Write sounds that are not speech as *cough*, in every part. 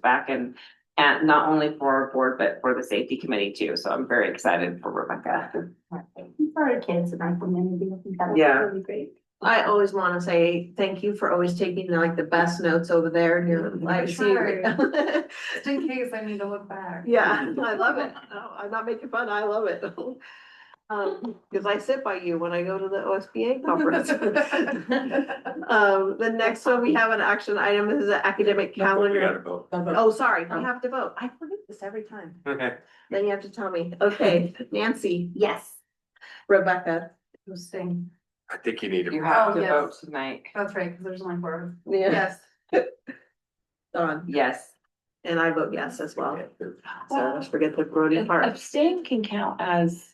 back and, and not only for our board, but for the safety committee too. So I'm very excited for Rebecca. For our kids in our community, I think that would be Yeah. really great. I always want to say thank you for always taking like the best notes over there in your Mhm. life. Just in case I need to look back. *laughs* Yeah, I love it. No, I'm not making fun. I love it. *laughs* Um, because I sit by you when I go to the OSBA conference. *laughs* Um, the next one, we have an action item. This is an academic calendar. Oh, sorry, we have to vote. I forget this every time. Okay. Then you have to tell me. Okay, Nancy, Yes. Rebecca. Interesting. *laughs* I think you need to. You have Oh, to yes. vote tonight. That's right, because there's *laughs* only four. Yeah. Yes. Dawn, Yes. and I vote yes as well. So I always forget the Brody *laughs* part. Abstain can count as.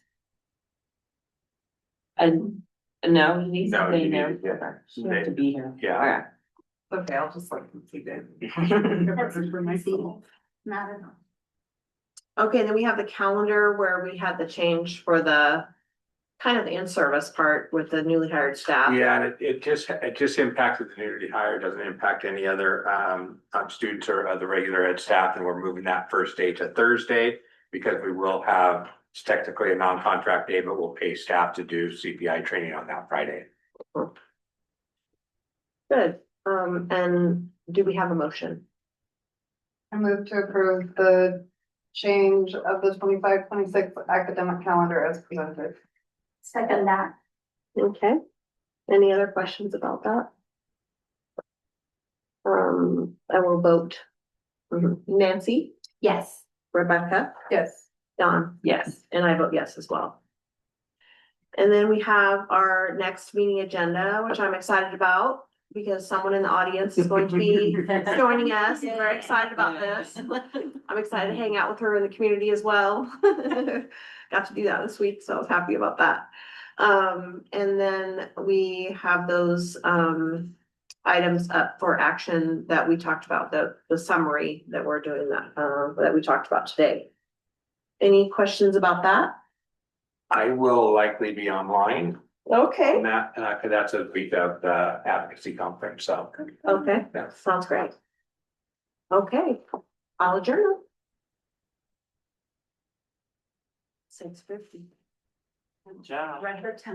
And, no, he needs No, to be you there. need- yeah. She has to be here. Yeah. Okay. Okay, I'll just like *laughs* complete it. That's For myself. Not at all. Okay, then we have the calendar where we had the change for the kind of the in-service part with the newly hired staff. Yeah, and it, it just, it just impacted the newly hired, doesn't impact any other, um, um, students or other regular ed staff, and we're moving that first day to Thursday. Because we will have, it's technically a non-contract day, but we'll pay staff to do CPI training on that Friday. Good. Um, and do we have a motion? I move to approve the change of the 25-26 academic calendar as presented. Second that. Okay. Any other questions about that? Um, I will vote. Mhm. Nancy, Yes. Rebecca, Yes. Don. Yes. And I vote yes as well. And then we have our next meeting agenda, which I'm excited about because someone in the audience is going to *laughs* be joining us. and We're excited about this. I'm excited to hang out with her in the community as well. *laughs* Got to do that this week, so I was happy about that. Um, and then we have those um items up for action that we talked about, the the summary that we're doing that uh that we talked about today. Any questions about that? I will likely be online Okay. on that, and I, that's a week of the advocacy conference, so. Okay, Yeah. sounds great. Okay, I'll adjourn. Six fifty. Good job. Record time.